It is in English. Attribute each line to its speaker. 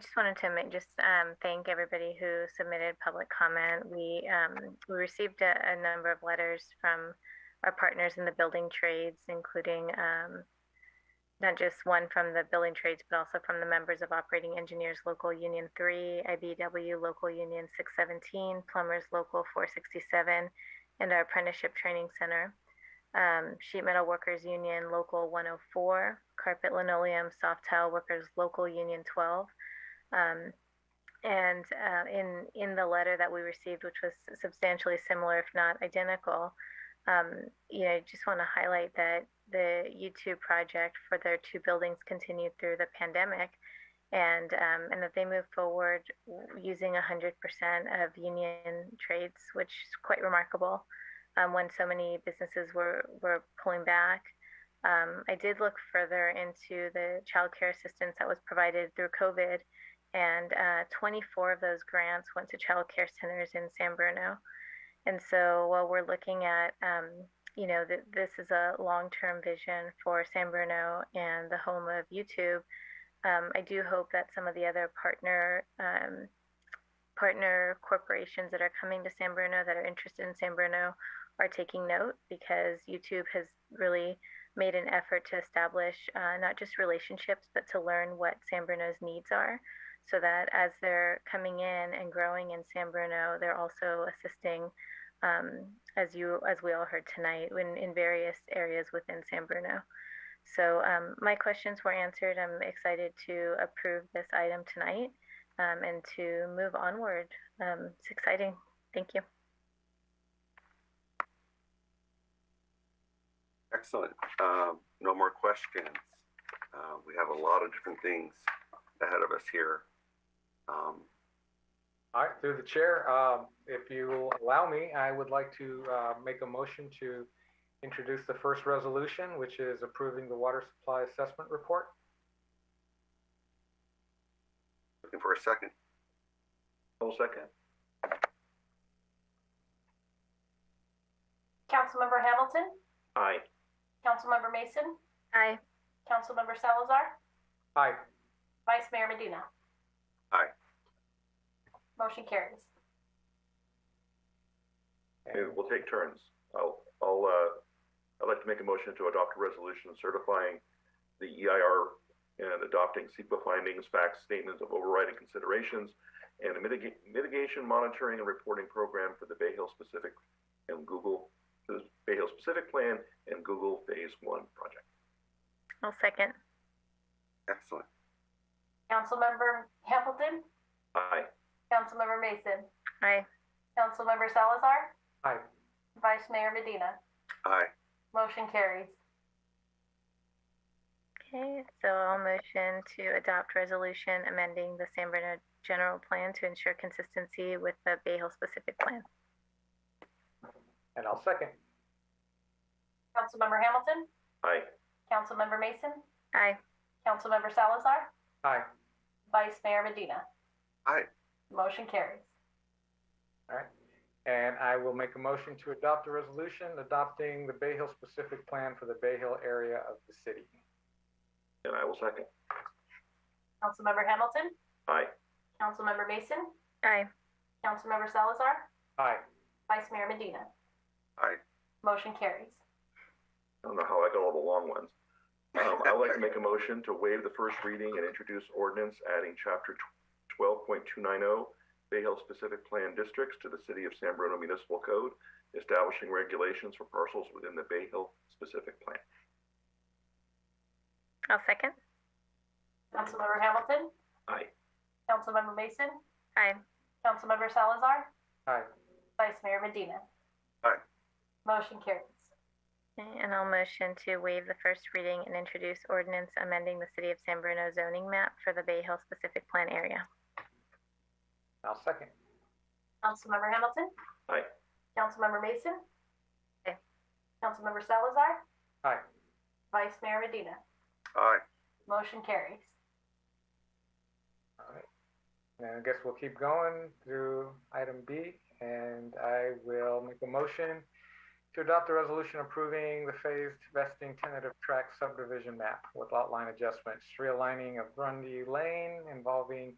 Speaker 1: just wanted to make, just um, thank everybody who submitted public comment. We, um, we received a, a number of letters from our partners in the building trades, including um, not just one from the building trades, but also from the members of Operating Engineers Local Union 3, IBW Local Union 617, Plumbers Local 467, and our Apprenticeship Training Center. Um, Sheet Metal Workers Union Local 104, Carpet Linoleum Soft Tile Workers Local Union 12, um, and uh, in in the letter that we received, which was substantially similar, if not identical, um, you know, I just want to highlight that the U2 project for their two buildings continued through the pandemic, and um, and that they moved forward using 100% of union trades, which is quite remarkable um, when so many businesses were were pulling back. Um, I did look further into the child care assistance that was provided through COVID, and uh, 24 of those grants went to child care centers in San Bruno. And so while we're looking at, um, you know, th- this is a long-term vision for San Bruno and the home of YouTube, um, I do hope that some of the other partner um, partner corporations that are coming to San Bruno that are interested in San Bruno are taking note because YouTube has really made an effort to establish uh, not just relationships but to learn what San Bruno's needs are so that as they're coming in and growing in San Bruno, they're also assisting, um, as you as we all heard tonight, in, in various areas within San Bruno. So um, my questions were answered. I'm excited to approve this item tonight um, and to move onward. Um, it's exciting. Thank you.
Speaker 2: Excellent. Um, no more questions. Uh, we have a lot of different things ahead of us here. Um,
Speaker 3: All right, through the chair, um, if you will allow me, I would like to uh, make a motion to introduce the first resolution, which is approving the water supply assessment report.
Speaker 2: looking for a second.
Speaker 4: I'll second.
Speaker 5: Councilmember Hamilton,
Speaker 4: Aye.
Speaker 5: Councilmember Mason,
Speaker 1: Aye.
Speaker 5: Councilmember Salazar,
Speaker 3: Aye,
Speaker 5: Vice Mayor Medina.
Speaker 2: Aye.
Speaker 5: Motion carries.
Speaker 4: Okay, we'll take turns. I'll, I'll, uh, I'd like to make a motion to adopt a resolution certifying the EIR and adopting SEPA findings, facts, statements of overriding considerations, and a mitigate, mitigation monitoring and reporting program for the Bay Hill specific and Google, the Bay Hill specific plan and Google Phase One project.
Speaker 1: I'll second.
Speaker 2: Excellent.
Speaker 5: Councilmember Hamilton,
Speaker 4: Aye.
Speaker 5: Councilmember Mason,
Speaker 1: Aye.
Speaker 5: Councilmember Salazar,
Speaker 3: aye.
Speaker 5: Vice Mayor Medina.
Speaker 2: Aye.
Speaker 5: Motion carries.
Speaker 1: Okay, so I'll motion to adopt resolution amending the San Bruno general plan to ensure consistency with the Bay Hill specific plan.
Speaker 3: And I'll second.
Speaker 5: Councilmember Hamilton,
Speaker 4: Aye.
Speaker 5: Councilmember Mason,
Speaker 1: Aye.
Speaker 5: Councilmember Salazar,
Speaker 3: Aye.
Speaker 5: Vice Mayor Medina.
Speaker 2: Aye.
Speaker 5: Motion carries.
Speaker 3: All right. And I will make a motion to adopt a resolution adopting the Bay Hill specific plan for the Bay Hill area of the city.
Speaker 4: And I will second.
Speaker 5: Councilmember Hamilton,
Speaker 4: Aye.
Speaker 5: Councilmember Mason,
Speaker 1: Aye.
Speaker 5: Councilmember Salazar,
Speaker 3: Aye,
Speaker 5: Vice Mayor Medina.
Speaker 2: Aye.
Speaker 5: Motion carries.
Speaker 4: I don't know how I got all the long ones. Um, I would like to make a motion to waive the first reading and introduce ordinance adding chapter twelve point two nine oh Bay Hill specific plan districts to the city of San Bruno Municipal Code, establishing regulations for parcels within the Bay Hill specific plan.
Speaker 1: I'll second.
Speaker 5: Councilmember Hamilton,
Speaker 4: Aye.
Speaker 5: Councilmember Mason,
Speaker 1: Aye.
Speaker 5: Councilmember Salazar,
Speaker 3: aye.
Speaker 5: Vice Mayor Medina.
Speaker 2: Aye.
Speaker 5: Motion carries.
Speaker 1: Okay, And I'll motion to waive the first reading and introduce ordinance amending the City of San Bruno zoning map for the Bay Hill specific plan area.
Speaker 3: I'll second.
Speaker 5: Councilmember Hamilton?
Speaker 4: Aye.
Speaker 5: Councilmember Mason?
Speaker 1: Aye.
Speaker 5: Councilmember Salazar,
Speaker 3: Aye,
Speaker 5: Vice Mayor Medina.
Speaker 2: Aye.
Speaker 5: Motion carries.
Speaker 3: all right. And I guess we'll keep going through item B, and I will make a motion to adopt a resolution approving the phased vesting tentative tract subdivision map with lot line adjustments, realigning of Grundy Lane involving